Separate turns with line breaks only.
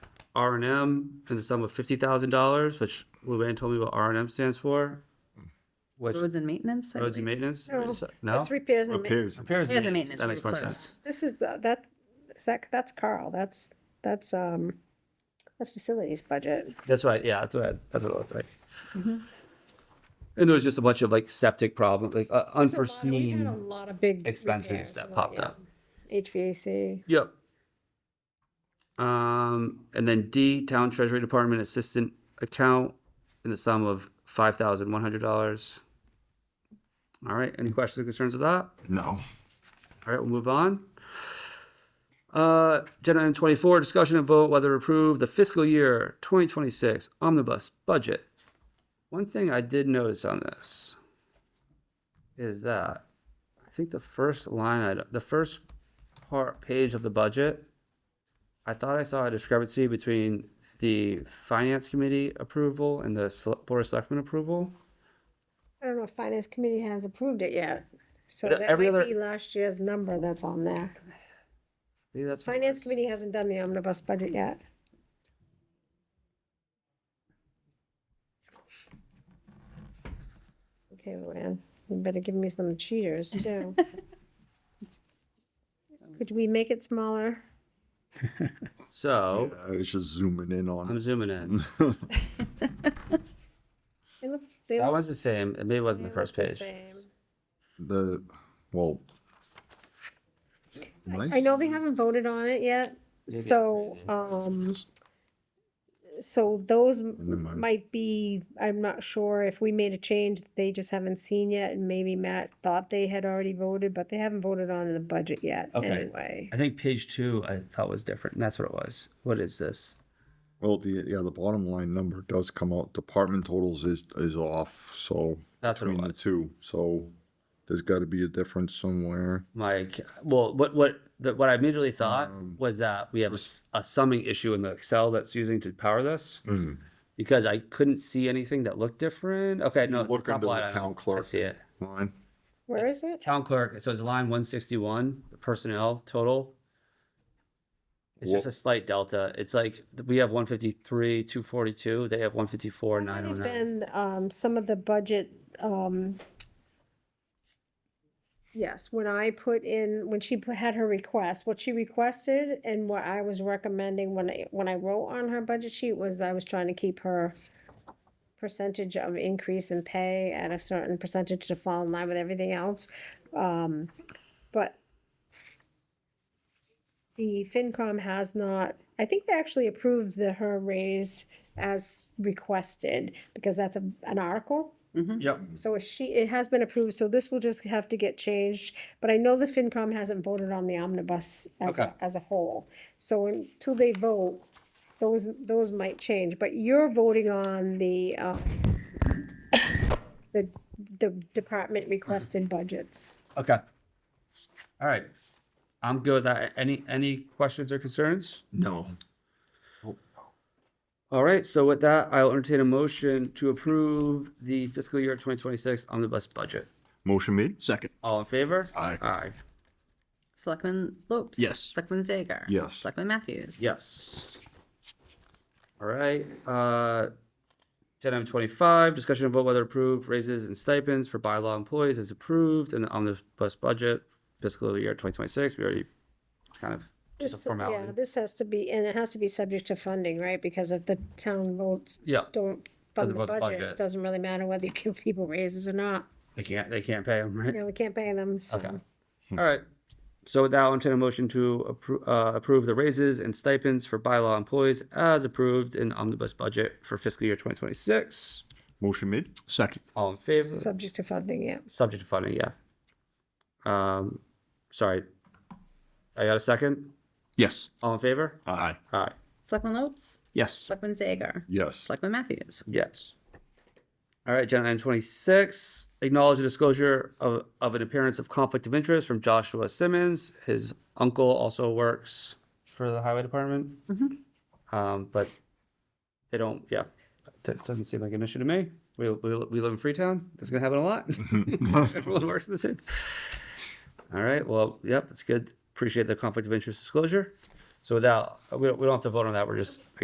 R and M for the sum of fifty thousand dollars, which Luann told me what R and M stands for. Which
Roads and maintenance? I
roads and
believe.
maintenance?
No.
Is that- No?
That's repairs and ma-
Appears.
Repairs
Repairs and maintenance
That
was
makes more
closed.
sense.
this is, the that, is that, that's Carl, that's, that's, um, that's facilities budget.
That's right, yeah, that's what, that's what it looked like.
Mm-hmm.
And there was just a bunch of like septic problems, like uh,
We've had a
unforeseen
lot of big.
expenses
repairs,
that
well,
popped
yeah.
up.
HVAC,
Yep. Um, and then D, Town Treasury Department Assistant Account in the sum of five thousand one hundred dollars. All right, any questions or concerns with that?
No.
All right, we'll move on. Uh, agenda item twenty-four, discussion and vote whether to approve the fiscal year twenty twenty-six omnibus budget. One thing I did notice on this is that I think the first line item, the first part, page of the budget, I thought I saw a discrepancy between the finance committee approval and the Sele- board of selectmen approval.
I don't know if finance committee has approved it yet, so
But uh,
that
every
might
other-
be last year's number that's on there.
Maybe that's. what it
Finance
was.
committee hasn't done the omnibus budget yet. Okay, Luann, you better give me some cheaters too. Could we make it smaller?
So,
Yeah, I was just zooming in on
Oh. I'm
it.
zooming in.
They look- they
That
look-
one's the same. It maybe wasn't
they
the first
look
page.
same.
The, well.
I know they haven't voted on it yet,
Maybe I'm
so, um, so those
Never mind.
might be, I'm not sure if we made a change that they just haven't seen yet, and maybe Matt thought they had already voted, but they haven't voted on the budget yet,
Okay.
anyway.
I think page two I thought was different, and that's what it was. What is this?
Well, the, yeah, the bottom line number does come out, department totals is, is off, so.
That's what it
between the
was.
Two, so there's gotta be a difference somewhere.
My ca- well, what what the, what I immediately thought
Um,
was that we have a, s- a summing issue in the Excel that's using to power this
Mm.
because I couldn't see anything that looked different. Okay, no,
Look
it's top
under
line.
the
item.
town clerk.
I see it.
Line,
Where is it?
Town clerk. So it's line one sixty one. The personnel total. It's just
Wha-
a slight delta. It's like we have one fifty three, two forty two. They have one fifty four,
Might
nine oh
have
nine.
been, um, some of the budget, um, yes, when I put in, when she pu- had her request, what she requested and what I was recommending when I, when I wrote on her budget sheet was I was trying to keep her percentage of increase in pay at a certain percentage to fall in line with everything else. Um, but the FinCom has not, I think they actually approved the, her raise as requested, because that's a, an article.
Yep.
So if she, it has been approved, so this will just have to get changed, but I know the FinCom hasn't voted on the omnibus as, a-
Okay.
as a whole. So until they vote, those, those might change, but you're voting on the, uh, the, the department requested budgets.
Okay. All right. I'm good with that. Any, any questions or concerns?
no.
All right, so with that, I'll entertain a motion to approve the fiscal year twenty twenty-six omnibus budget.
Motion made?
Second.
All in favor?
Aye.
Aye,
Selectman Lopes.
Yes.
Selectman Zager.
Yes.
Selectman Matthews.
yes. All right, uh, agenda item twenty-five, discussion of vote whether approved raises and stipends for bylaw employees is approved in the omnibus budget fiscal year twenty twenty-six. We already kind of, just
This-
a
Yeah,
formality.
this has to be, and it has to be subject to funding, right, because if the town votes,
Yeah,
don't fund
Doesn't
the
vote the
budget,
budget.
it doesn't really matter whether you give people raises or not,
they can't, they can't pay them, right?
you know, we can't pay them,
Okay.
so.
Hmm.
All right. So with that, I'll entertain a motion to appro- uh, approve the raises and stipends for bylaw employees as approved in the omnibus budget for fiscal year twenty twenty-six.
Motion made?
Second.
All in favor?
Subject to funding, yeah.
Subject to funding, yeah. Um, sorry. I got a second?
Yes.
All in favor?
Aye.
All right,
Selectman Lopes.
Yes.
Selectman Zager.
Yes.
Selectman Matthews.
yes. All right, agenda item twenty-six, acknowledge the disclosure of, of an appearance of conflict of interest from Joshua Simmons. His uncle also works for the highway department. Um, but they don't, yeah, that doesn't seem like an issue to me. We, we, we live in Freetown. It's gonna happen a lot. Everyone works in the same. All right, well, yep, it's good. Appreciate the conflict of interest disclosure. So without, we don't, we don't have to vote on that. We're just